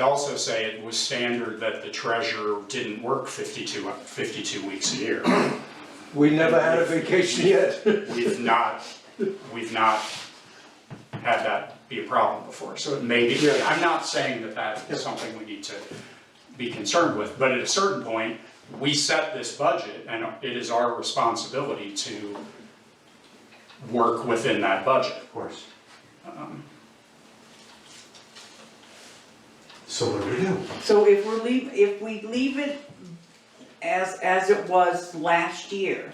I'd also say it was standard that the treasurer didn't work 52 52 weeks a year. We never had a vacation yet. We've not, we've not had that be a problem before, so it may be, Yeah. I'm not saying that that is something we need to be concerned with, but at a certain point, we set this budget, and it is our responsibility to work within that budget. Of course. So what do we do? So if we're leave, if we leave it as, as it was last year,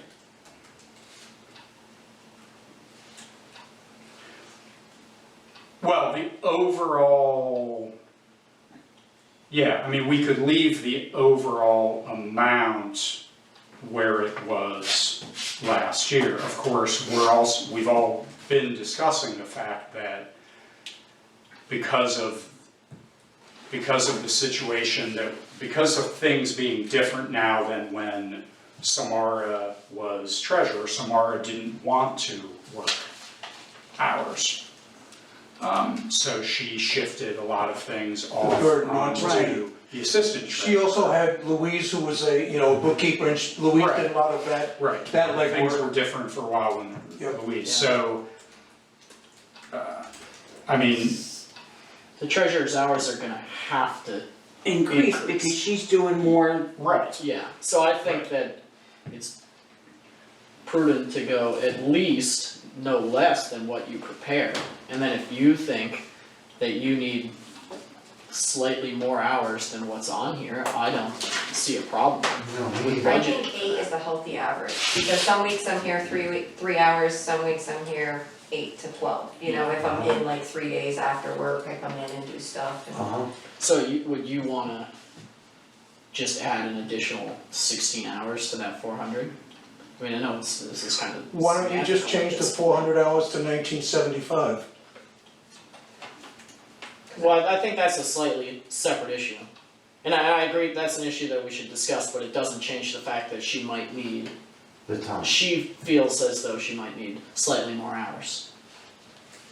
Well, the overall, yeah, I mean, we could leave the overall amount where it was last year. Of course, we're also, we've all been discussing the fact that because of, because of the situation that, because of things being different now than when Samara was treasurer, Samara didn't want to work hours. Um, So she shifted a lot of things off burden onto onto- the assistant She treasurer. also had Louise, who was a, you know, bookkeeper, and she- Louise did a lot of that. Right. That Things were legwork. different for a while when Yep. Louise, so, uh, I mean, The treasurer's hours are gonna have to, increase Increase. because she's doing more, right, yeah, so I think that it's prudent to go at least no less than what you prepare, and then if you think that you need slightly more hours than what's on here, I don't see a problem No, we with need I budget. think eight is the healthy average, because some weeks I'm here three week, three hours, some weeks I'm here eight to twelve. You know, if I'm in like three days after work, I come in and do stuff and. Uh-huh. So you, would you wanna just add an additional sixteen hours to that four hundred? I mean, I know it's, this is kind of. Why don't you just change the semantical, four hundred hours to nineteen seventy-five? but it's- Well, I think that's a slightly separate issue. And I, I agree, that's an issue that we should discuss, but it doesn't change the fact that she might need, The time. she feels as though she might need slightly more hours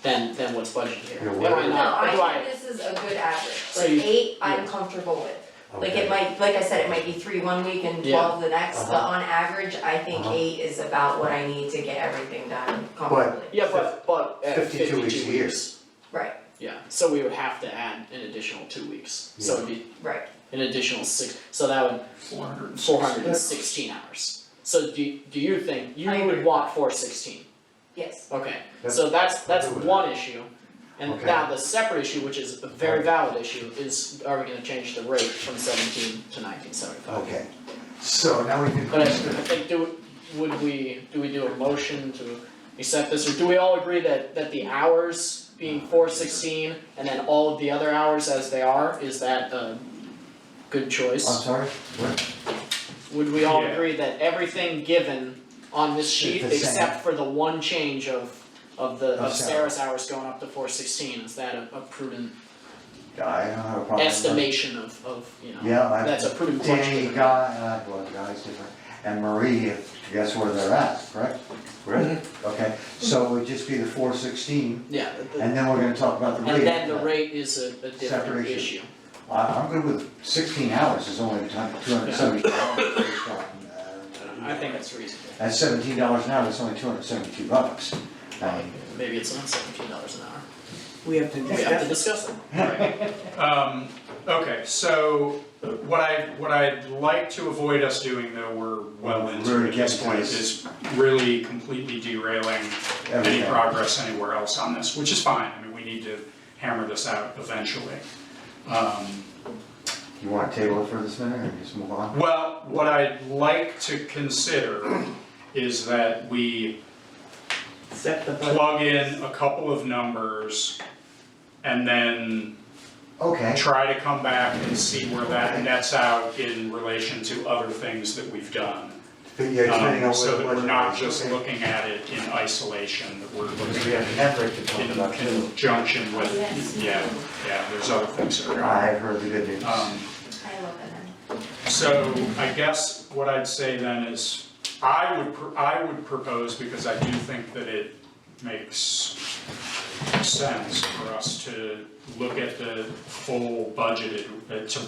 than, than what's budgeted here. Yeah, Am whatever. I No, not- do I think this is a good average, So like you- eight, I'm yeah. comfortable with. Like Okay. it might, like I said, it might be three one week and Yeah. twelve the next, but Uh-huh. on average, I think Uh-huh. eight is about what I need to get everything done comfortably. Yeah, but, but at fifty-two 52 weeks a year. weeks, Right, yeah, so we would have to add an additional two weeks, so it'd be right. an additional six, so that would four hundred and four hundred and sixty. sixteen hours. So do, do you think, you I agree. would want four sixteen, Yes, okay, That's- so that's, that's I agree with one issue. And Okay. now the separate issue, which is a very valid issue, is are we gonna change the rate from seventeen to nineteen seventy-five? Okay, so now we can. But I, I think do, would we, do we do a motion to accept this, or do we all agree that, that the hours being four sixteen and then all of the other hours as they are, is that a good choice? I'm sorry, what? Would we all Yeah. agree that everything given on this sheet, Is the same. except for the one change of, of the, Of of Sarah's hours going up to four sixteen, is that a, a prudent I don't have a problem. with- estimation of, of, you know? Yeah, I- That's a prudent question. Danny, Guy, and I, well, Guy's different, and Marie, if, guess where they're at, correct? Right. Okay, so it would just be the four sixteen, Yeah, the- and then we're gonna talk about the rate. and then the rate is a, a different Separation. issue. I, I'm good with sixteen hours is only the time, two hundred seventy-two dollars. I think that's reasonable. At seventeen dollars an hour, that's only two hundred seventy-two bucks. Um, Maybe it's not seventeen dollars an hour. we have to We have to discuss. discuss it. Um, okay, so what I, what I'd like to avoid us doing though, we're well into We're at this getting point, to is really completely derailing any Everything. progress anywhere else on this, which is fine, I mean, we need to hammer this out eventually. Um, You wanna table it for this minute and just move on? Well, what I'd like to consider is that we Set the budget. plug in a couple of numbers and then Okay, try to come back and see where that nets out in relation to other things that we've done. but yeah, depending on Um, what. So that what- we're not just okay. looking at it in isolation, that we're Because looking we at it have net rate to talk in about too. conjunction with, yeah, yeah, there's other things that are. I have heard the good news. Um, I love it. So I guess what I'd say then is, I would, pr- I would propose, because I do think that it makes sense for us to look at the full budgeted, uh, to